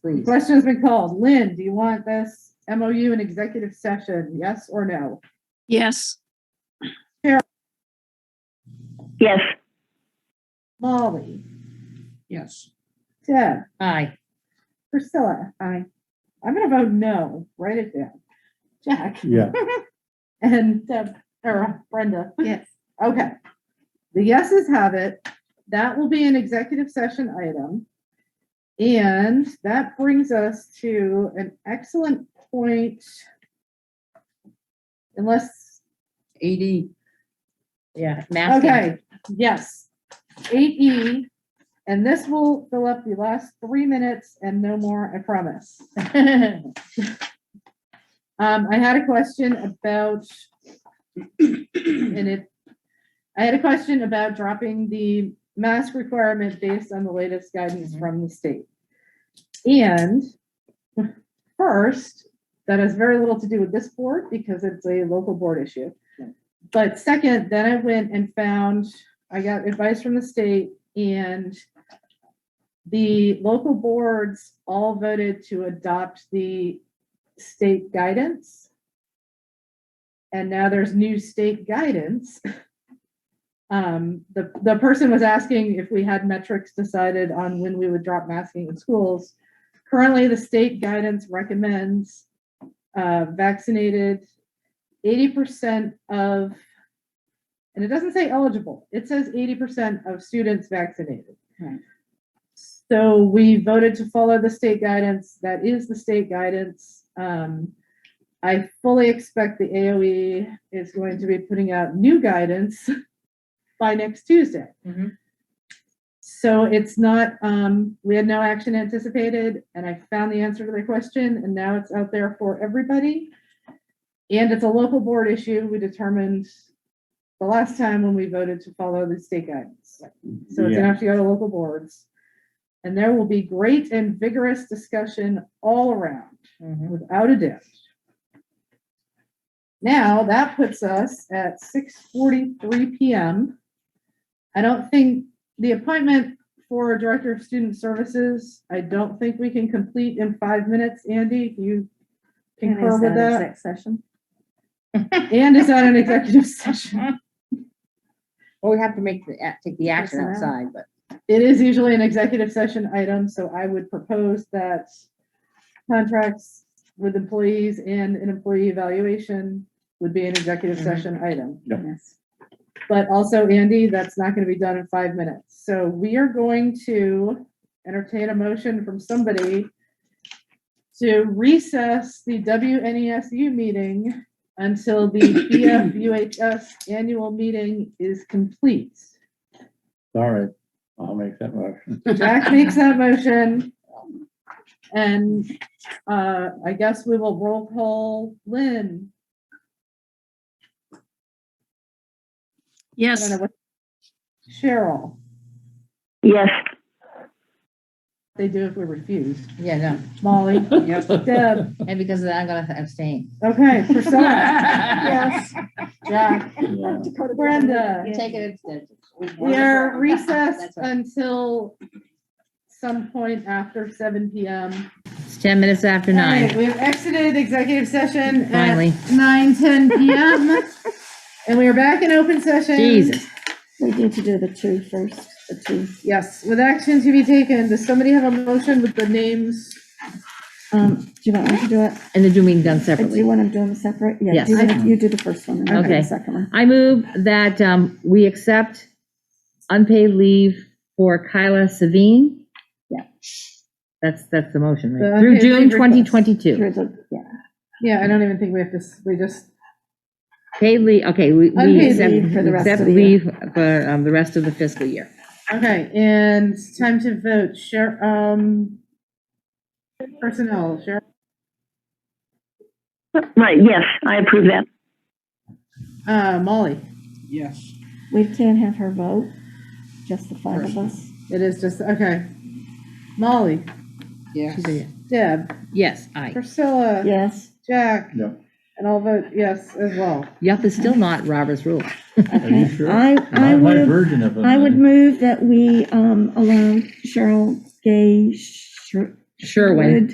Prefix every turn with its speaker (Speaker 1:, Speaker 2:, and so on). Speaker 1: please.
Speaker 2: Question's been called. Lynn, do you want this MOU in executive session? Yes or no?
Speaker 3: Yes,
Speaker 4: Yes,
Speaker 2: Molly,
Speaker 1: Yes.
Speaker 2: Deb,
Speaker 1: Aye.
Speaker 2: Priscilla. Aye. I'm gonna vote no. Write it down. Jack
Speaker 5: Yeah,
Speaker 2: and Deb, or Brenda.
Speaker 1: Yes.
Speaker 2: Okay. The yeses have it. That will be an executive session item. And that brings us to an excellent point. Unless
Speaker 1: Eighty. Yeah. math.
Speaker 2: Okay, yes. Eight E, and this will fill up the last three minutes and no more, I promise. Um, I had a question about, and it, I had a question about dropping the mask requirement based on the latest guidance
Speaker 1: Mhm.
Speaker 2: from the state. And first, that has very little to do with this board because it's a local board issue. But second, then I went and found, I got advice from the state and the local boards all voted to adopt the state guidance. And now there's new state guidance. Um, the, the person was asking if we had metrics decided on when we would drop masking in schools. Currently, the state guidance recommends uh, vaccinated eighty percent of, and it doesn't say eligible, it says eighty percent of students vaccinated.
Speaker 1: Right.
Speaker 2: So we voted to follow the state guidance, that is the state guidance. Um, I fully expect the AOE is going to be putting out new guidance by next Tuesday.
Speaker 1: Mhm.
Speaker 2: So it's not, um, we had no action anticipated, and I found the answer to the question, and now it's out there for everybody. And it's a local board issue. We determined the last time when we voted to follow the state guidance. So it's gonna have to go to local boards. And there will be great and vigorous discussion all around,
Speaker 1: Mhm.
Speaker 2: without a doubt. Now, that puts us at six forty-three PM. I don't think the appointment for Director of Student Services, I don't think we can complete in five minutes. Andy, you concur with that?
Speaker 4: session?
Speaker 2: And is that an executive session?
Speaker 1: Well, we have to make the, a- take the action
Speaker 4: Personnel.
Speaker 1: outside, but
Speaker 2: It is usually an executive session item, so I would propose that contracts with employees and an employee evaluation would be an executive
Speaker 1: Mhm.
Speaker 2: session item.
Speaker 5: Yep.
Speaker 4: Yes.
Speaker 2: But also, Andy, that's not gonna be done in five minutes. So we are going to entertain a motion from somebody to recess the WNESU meeting until the BFUHS annual meeting is complete.
Speaker 5: all right. I'll make that motion.
Speaker 2: Jack makes that motion. And, uh, I guess we will roll call Lynn. I don't
Speaker 3: yes,
Speaker 2: know what- Cheryl,
Speaker 4: Yes.
Speaker 2: they do if we refuse.
Speaker 1: yeah, no.
Speaker 2: Molly, Deb,
Speaker 1: And because of that, I'm gonna abstain.
Speaker 2: okay, Priscilla,
Speaker 1: Yes.
Speaker 2: Jack,
Speaker 5: Yeah.
Speaker 2: Brenda.
Speaker 1: Take it instead.
Speaker 2: We are recessed until some point after seven PM.
Speaker 1: It's ten minutes after
Speaker 2: All
Speaker 1: nine,
Speaker 2: right, We've exited executive session at
Speaker 1: finally.
Speaker 2: nine ten PM. And we are back in open session.
Speaker 1: Jesus.
Speaker 4: We need to do the two first, the two.
Speaker 2: Yes, with action to be taken, does somebody have a motion with the names?
Speaker 4: Um, do you want me to do it?
Speaker 1: And they're doing done
Speaker 4: Uh, Do
Speaker 1: separately.
Speaker 4: you want to do them separate? Yeah,
Speaker 1: Yes.
Speaker 4: do You wanna- you do the first one and I'll do
Speaker 1: Okay.
Speaker 4: the second one.
Speaker 1: I move that um, we accept unpaid leave for Kyla Savine.
Speaker 4: Yeah.
Speaker 1: That's, that's the motion,
Speaker 2: The
Speaker 1: right? Through
Speaker 2: unpaid
Speaker 1: June
Speaker 2: leave request.
Speaker 4: Through
Speaker 1: 2022.
Speaker 4: the- yeah.
Speaker 2: Yeah, I don't even think we have to, s- we just,
Speaker 1: Paid leave, okay, we, we
Speaker 2: Unpaid
Speaker 1: accept,
Speaker 4: leave for the rest
Speaker 1: accept
Speaker 4: of the year.
Speaker 1: leave for um, the rest of the fiscal year.
Speaker 2: okay, and time to vote, Share. um, personnel, Cheryl?
Speaker 4: Right, yes, I approve that.
Speaker 2: Uh, Molly,
Speaker 6: Yes.
Speaker 4: We can't have her vote, just the five of us.
Speaker 2: it is just, okay. Molly,
Speaker 6: Yes.
Speaker 1: She's a-
Speaker 2: Deb,
Speaker 1: Yes, aye.
Speaker 2: Priscilla,
Speaker 4: Yes,
Speaker 2: Jack,
Speaker 5: No,
Speaker 2: and I'll vote yes as well.
Speaker 1: Yup is still not Robert's rule.
Speaker 5: are you
Speaker 4: okay.
Speaker 5: sure?
Speaker 4: I, I
Speaker 5: My- My
Speaker 4: would,
Speaker 5: version of it.
Speaker 4: I would move that we um, allow Cheryl Gay Sher-
Speaker 1: Sherwin.